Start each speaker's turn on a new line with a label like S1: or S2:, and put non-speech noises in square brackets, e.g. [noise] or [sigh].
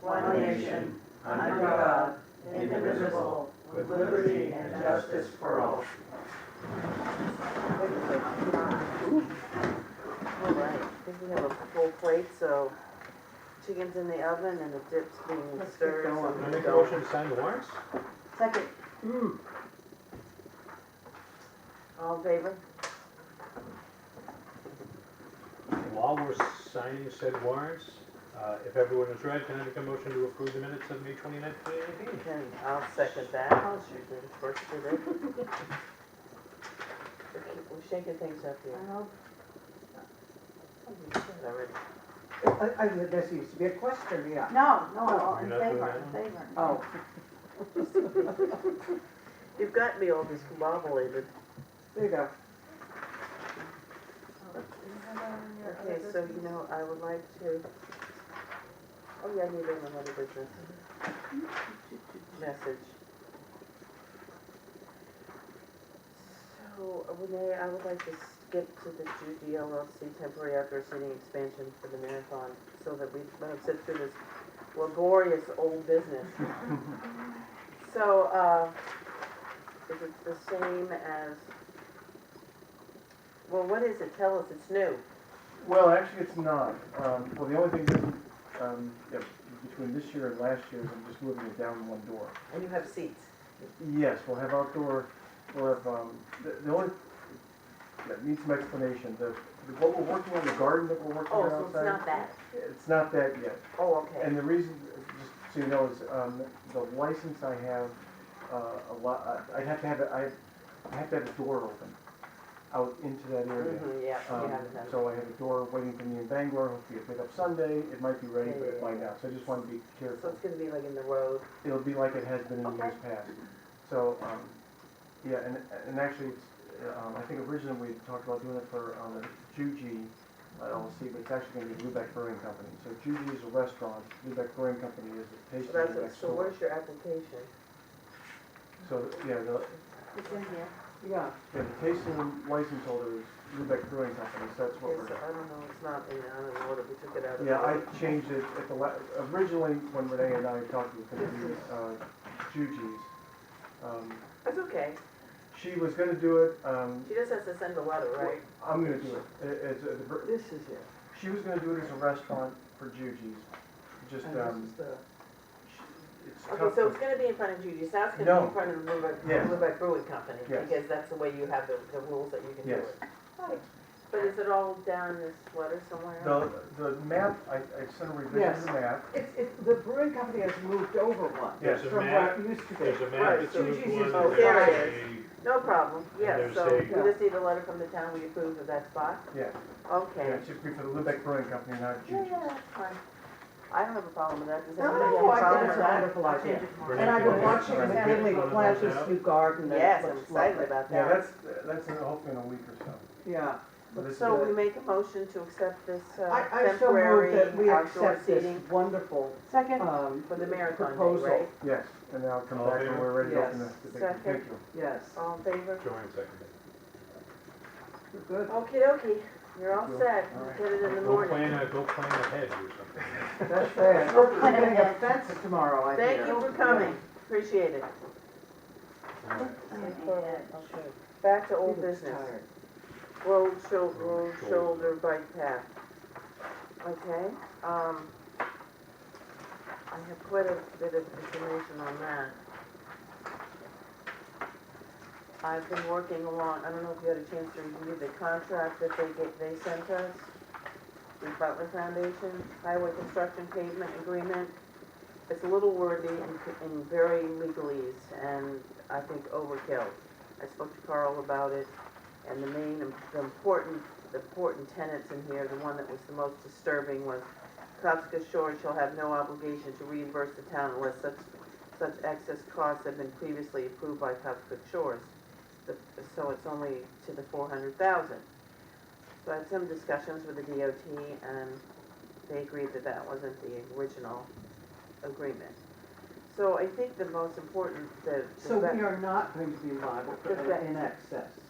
S1: one nation, under God, indivisible, with liberty and justice for all.
S2: All right, I think we have a full plate, so chicken's in the oven and the dip's being
S1: Let's get
S2: stirred.
S1: going.
S2: so-
S3: I make a motion to sign the warrants?
S2: Second.
S1: Hmm.
S2: All in favor?
S3: While we're signing said warrants, uh, if everyone is read, can I make a motion to approve the minutes of May twenty-ninth, twenty eighteen?
S2: Okay, I'll second that. Susan, first did it. We're shaking things up here. Something said already.
S4: I, I, there seems to be a question, yeah.
S1: No, no, all in
S3: Oh, You're not doing
S1: favor,
S3: that
S1: in
S3: one?
S1: favor.
S4: Oh,
S2: You've got me all discombobulated.
S4: there you go.
S2: Okay, so you know, I would like to, oh yeah, I need another business message. So uh, Renee, I would like to skip to the Judy LLC temporary outdoor seating expansion for the marathon so that we don't sit through this laborious old business. So, uh, is it the same as, well, what is it? Tell us, it's new.
S5: Well, actually, it's not. Um, well, the only thing that, um, that between this year and last year is I'm just moving it down one door.
S2: And you have seats.
S5: Yes, we'll have outdoor, we'll have, um, the, the only, that needs some explanation. The, the- what we're working on, the garden that we're working
S2: Oh,
S5: on
S2: so it's
S5: outside.
S2: not that.
S5: It's not that yet.
S2: Oh, okay.
S5: And the reason, just so you know, is, um, the license I have, uh, a lot, I'd have to have, it- I, I have to have a door open out into that area.
S2: Mhm, yeah, you
S5: Um,
S2: have them.
S5: So I have a door waiting for me in Bangor, hopefully it'll pick up Sunday, it might be ready, but it might not, so I just want to be
S2: So
S5: careful.
S2: it's gonna be like in the road.
S5: It'll be like it has been in years past. So, um, yeah, and, and actually, it's, um, I think originally we talked about doing it for, um, the Juji LLC, but it's actually gonna be Lubec Brewing Company. So Juji is a restaurant, Lubec Brewing Company is a
S2: So
S5: pastry
S2: that's, it.
S5: next
S2: so
S5: door.
S2: where's your application?
S5: So, yeah, the,
S1: It's in here.
S4: Yeah,
S5: yeah, the tasting license holder is Lubec Brewing Company, so that's what
S2: Okay,
S5: we're.
S2: so I don't know, it's not in, I don't know what if we took it out of.
S5: Yeah, I
S2: order.
S5: changed it at the la, originally, when Renee and I talked, it was gonna be, uh, Juji's. Um,
S2: That's okay.
S5: She was gonna do it, um,
S2: She just has to send a letter, right?
S5: I'm gonna do it, it, it's, uh, the br-
S4: this is it.
S5: she was gonna do it as a restaurant for Juji's, just,
S4: And this
S5: um,
S4: is the,
S5: sh- it's tough.
S2: Okay, so it's gonna be in front of Judy's house, it's gonna be
S5: No.
S2: in front of the Lubec,
S5: Yes.
S2: Lubec Brewing Company,
S5: Yes.
S2: because that's the way you have the, the rules that you can do
S5: Yes.
S2: it. Right. But is it all down this letter somewhere?
S5: The, the map, I, I sent a revision
S4: Yes.
S5: to the map,
S4: it's, it, the brewing company has moved over one
S5: Yes,
S3: There's a
S4: from
S3: map,
S4: what it used to
S3: there's
S4: be.
S3: a
S2: Right,
S3: map that's
S4: so
S3: in
S4: Gigi's
S3: one.
S4: is-
S2: There it
S3: there's
S2: No problem, yeah,
S3: There's
S2: so
S3: a-
S2: we just need a letter from the town, we approve of that spot?
S5: yeah, yeah,
S2: Okay.
S5: it's just for the Lubec Brewing Company, not
S2: Yeah,
S5: Juji's.
S2: yeah, that's fine. I don't have a problem with that, does
S4: No,
S2: anybody have a
S4: no, I think
S2: problem
S4: it's
S2: with
S4: a
S2: that?
S4: wonderful idea.
S3: a-
S4: And I've been watching
S5: Alright.
S4: Stanley
S3: Wanna
S4: plant
S3: punch it
S4: this
S3: out?
S4: new garden that
S2: Yes, I'm
S4: looks
S2: excited
S4: lovely.
S2: about
S5: Yeah,
S2: that.
S5: that's, that's in- hopefully in a week or so.
S4: Yeah,
S5: But this is
S2: So
S5: it.
S2: we make a motion to accept this uh,
S4: I, I so
S2: temporary
S4: moved that we
S2: outdoor
S4: accept this
S2: seating.
S4: wonderful,
S2: Second.
S4: um,
S2: For the marathon day,
S4: proposal.
S2: right?
S5: Yes, and then I'll come
S3: All
S5: back
S3: in
S5: when we're ready to open
S4: Yes.
S5: the, the big
S2: Second.
S5: picture.
S4: Yes,
S2: All in favor?
S3: Joanne seconded.
S4: you're good.
S2: Okie dokie, you're all
S5: Cool.
S2: set,
S5: All right.
S2: get it in the
S3: Go plan,
S2: morning.
S3: a- go plan ahead or something.
S4: That's
S2: [laughs]
S4: fair. We're getting a fence tomorrow, I
S2: Thank
S4: hear.
S2: you for coming, appreciate it.
S3: All
S2: [laughs]
S3: right.
S2: Okay. Back to old business,
S4: Tired.
S2: road shoulder, road
S3: Road
S2: shoulder bike path. Okay, um, I have quite a bit of information on that. I've been working along, I don't know if you had a chance to review the contract that they get, they sent us. The Butler Foundation Highway Construction Pavement Agreement. It's a little wordy and, c- and very legalese and I think overkill. I spoke to Carl about it and the main, im- the important, the important tenants in here, the one that was the most disturbing was Copska Shore shall have no obligation to reimburse the town unless such, such excess costs have been previously approved by Copska Shores. The- So it's only to the four hundred thousand. So I had some discussions with the DOT and they agreed that that wasn't the original agreement. So I think the most important, the. the
S4: So
S2: re-
S4: we are not going to be liable for
S2: Correct.
S4: in excess.